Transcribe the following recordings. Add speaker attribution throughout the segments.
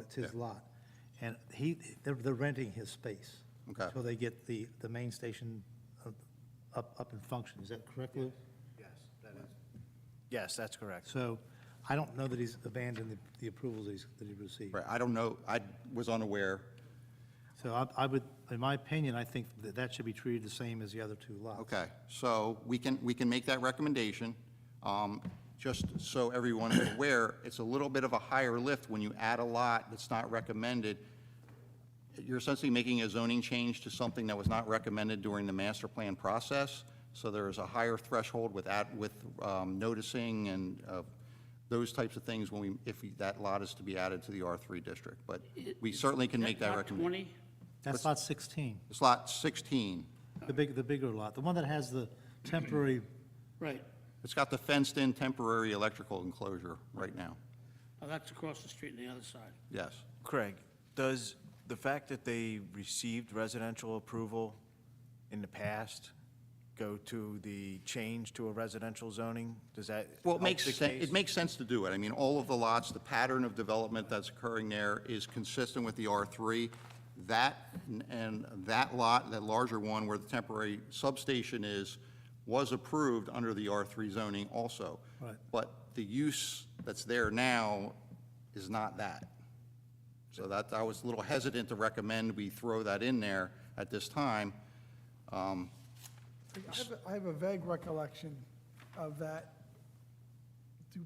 Speaker 1: it's his lot. And he, they're, they're renting his space.
Speaker 2: Okay.
Speaker 1: Till they get the, the main station up- up, up and functioning. Is that correct, Lou?
Speaker 3: Yes, that is. Yes, that's correct.
Speaker 1: So I don't know that he's abandoned the, the approvals that he's, that he received.
Speaker 2: Right, I don't know, I was unaware.
Speaker 1: So I, I would, in my opinion, I think that that should be treated the same as the other two lots.
Speaker 2: Okay, so we can, we can make that recommendation. Um, Just so everyone is aware, it's a little bit of a higher lift when you add a lot that's not recommended. You're essentially making a zoning change to something that was not recommended during the master plan process. So there is a higher threshold with that, with um, noticing and uh, those types of things when we, if we- that lot is to be added to the R3 district. But we certainly can make that
Speaker 4: Lot
Speaker 2: recommendation.
Speaker 4: 20?
Speaker 1: That's lot 16,
Speaker 2: It's lot 16.
Speaker 1: the big, the bigger lot, the one that has the temporary,
Speaker 4: Right.
Speaker 2: It's got the fenced-in temporary electrical enclosure right now.
Speaker 4: Oh, that's across the street on the other side.
Speaker 2: Yes.
Speaker 3: Craig, does the fact that they received residential approval in the past go to the change to a residential zoning? Does that
Speaker 2: Well,
Speaker 3: help
Speaker 2: it makes,
Speaker 3: the
Speaker 2: sen-
Speaker 3: case?
Speaker 2: it makes sense to do it. I mean, all of the lots, the pattern of development that's occurring there is consistent with the R3. That, n- and that lot, that larger one where the temporary substation is, was approved under the R3 zoning also.
Speaker 1: Right.
Speaker 2: But the use that's there now is not that. So that, I was a little hesitant to recommend we throw that in there at this time.
Speaker 5: I have a- I have a vague recollection of that du-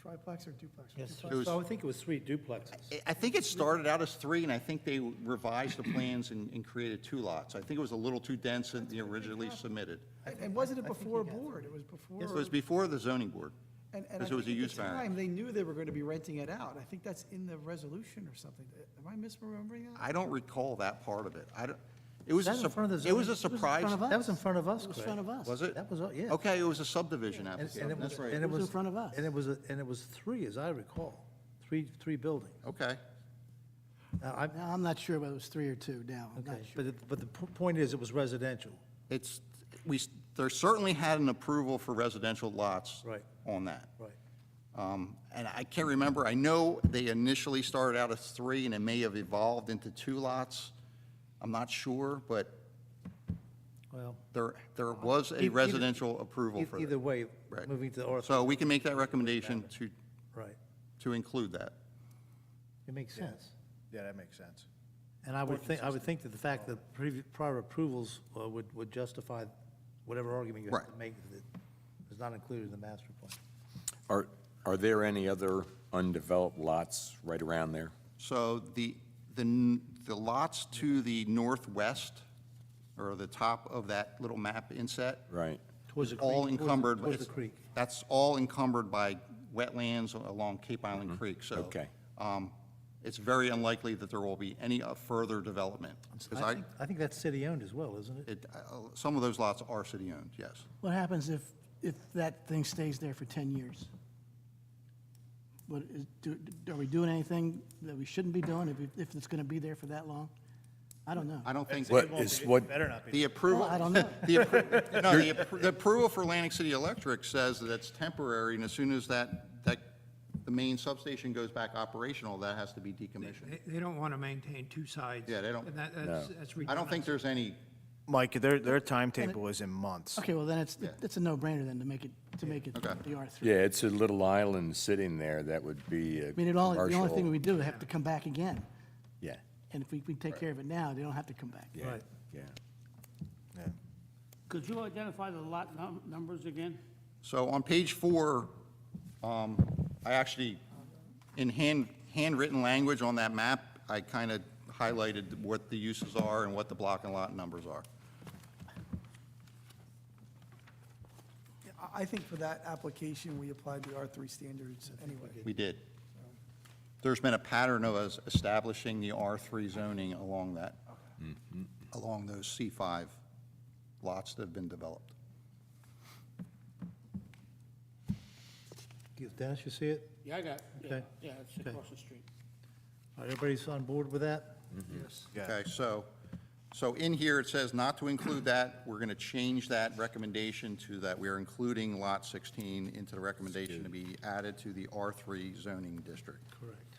Speaker 5: triplex or duplex. or
Speaker 1: yes,
Speaker 5: duplex?
Speaker 2: was-
Speaker 1: so I think it was three duplexes.
Speaker 2: I- I think it started out as three, and I think they revised the plans and, and created two lots. I think it was a little too dense in the originally submitted.
Speaker 5: And- And wasn't it before a board? It was before.
Speaker 2: It was before the zoning board.
Speaker 5: and- and I
Speaker 2: Because it was a
Speaker 5: think at the
Speaker 2: use
Speaker 5: time,
Speaker 2: variance.
Speaker 5: They knew they were going to be renting it out. I think that's in the resolution or something. Am I misremembering that?
Speaker 2: I don't recall that part of it. I don't, it was, a
Speaker 1: That was in front of
Speaker 2: sup-
Speaker 1: the
Speaker 2: it was
Speaker 1: zoning-
Speaker 2: a surprise.
Speaker 1: That was in front of us, It was
Speaker 5: in front of us.
Speaker 2: Was it?
Speaker 1: That was, yeah.
Speaker 2: Okay, it was a subdivision
Speaker 1: And- and it
Speaker 2: application,
Speaker 1: was-
Speaker 2: that's right.
Speaker 1: and
Speaker 5: It was in front of us.
Speaker 1: And it was, a- and it was three, as I recall, three, three buildings.
Speaker 2: Okay,
Speaker 1: Now, I'm,
Speaker 6: Now, I'm not sure whether it was three or two now. I'm not
Speaker 1: okay,
Speaker 6: sure.
Speaker 1: but, it- but the po- point is, it was residential.
Speaker 2: it's, we, s- there certainly had an approval for residential lots.
Speaker 1: Right.
Speaker 2: On that.
Speaker 1: Right.
Speaker 2: Um, And I can't remember, I know they initially started out as three, and it may have evolved into two lots. I'm not sure, but
Speaker 1: Well,
Speaker 2: there, there was
Speaker 1: E-, Either-
Speaker 2: a
Speaker 1: either-
Speaker 2: residential approval
Speaker 1: e-
Speaker 2: for that.
Speaker 1: either way,
Speaker 2: Right.
Speaker 1: moving to the R,
Speaker 2: So we can make that recommendation to,
Speaker 1: right,
Speaker 2: to include that.
Speaker 1: it makes sense.
Speaker 3: Yeah, that makes sense.
Speaker 1: And I would think, I would think that the fact that previ- prior approvals uh, would, would justify whatever argument you have to
Speaker 2: Right.
Speaker 1: make that is not included in the master plan.
Speaker 7: Are, are there any other undeveloped lots right around there?
Speaker 2: So the, the, n- the lots to the northwest, or the top of that little map inset.
Speaker 7: Right.
Speaker 1: Towards the creek.
Speaker 2: all
Speaker 1: towards the-
Speaker 2: encumbered.
Speaker 1: Towards the
Speaker 2: it's-
Speaker 1: creek.
Speaker 2: That's all encumbered by wetlands along Cape Island Creek, so.
Speaker 7: Okay.
Speaker 2: um, It's very unlikely that there will be any uh, further development. Because
Speaker 1: I
Speaker 2: I,
Speaker 1: think, I think that's city-owned as well, isn't it?
Speaker 2: it, uh, some of those lots are city-owned, yes.
Speaker 6: What happens if, if that thing stays there for 10 years? What, is, do, are we doing anything that we shouldn't be doing if, it- if it's going to be there for that long? I don't know.
Speaker 2: I don't think.
Speaker 7: What is what,
Speaker 2: The approval.
Speaker 6: Well, I don't know.
Speaker 2: The appro- no, the appro- the approval for Atlantic City Electric says that it's temporary, and as soon as that, that, the main substation goes back operational, that has to be decommissioned.
Speaker 8: They- They don't want to maintain two sides.
Speaker 2: Yeah, they don't-
Speaker 8: And that- that's, that's
Speaker 2: I don't think
Speaker 8: ridiculous.
Speaker 2: there's any,
Speaker 3: Mike, their, their timetable is in months.
Speaker 6: Okay, well, then it's, it's a no-brainer then to make it, to make it the
Speaker 2: Okay.
Speaker 6: R3.
Speaker 7: yeah, it's a little island sitting there that would be a
Speaker 6: I mean, it all, the only thing
Speaker 7: commercial-
Speaker 6: we do is have to come back again.
Speaker 7: Yeah,
Speaker 6: And if we, we take care of it now, they don't have to come back.
Speaker 7: yeah,
Speaker 1: Right.
Speaker 7: yeah.
Speaker 4: Could you identify the lot num- numbers again?
Speaker 2: so on page four, um, I actually, in hand, handwritten language on that map, I kind of highlighted what the uses are and what the block and lot numbers are.
Speaker 5: I- I think for that application, we applied the R3 standards anyway.
Speaker 2: We did. There's been a pattern of us establishing the R3 zoning along that, along those C5 lots that have been developed.
Speaker 1: Dennis, you see it?
Speaker 4: Yeah, I got, yeah,
Speaker 1: Okay.
Speaker 4: yeah, it's
Speaker 1: Okay.
Speaker 4: across the street.
Speaker 1: All right, Everybody's on board with that?
Speaker 2: Okay, so, so in here, it says not to include that. We're going to change that recommendation to that we are including Lot 16 into the recommendation to be added to the R3 zoning district.
Speaker 1: Correct.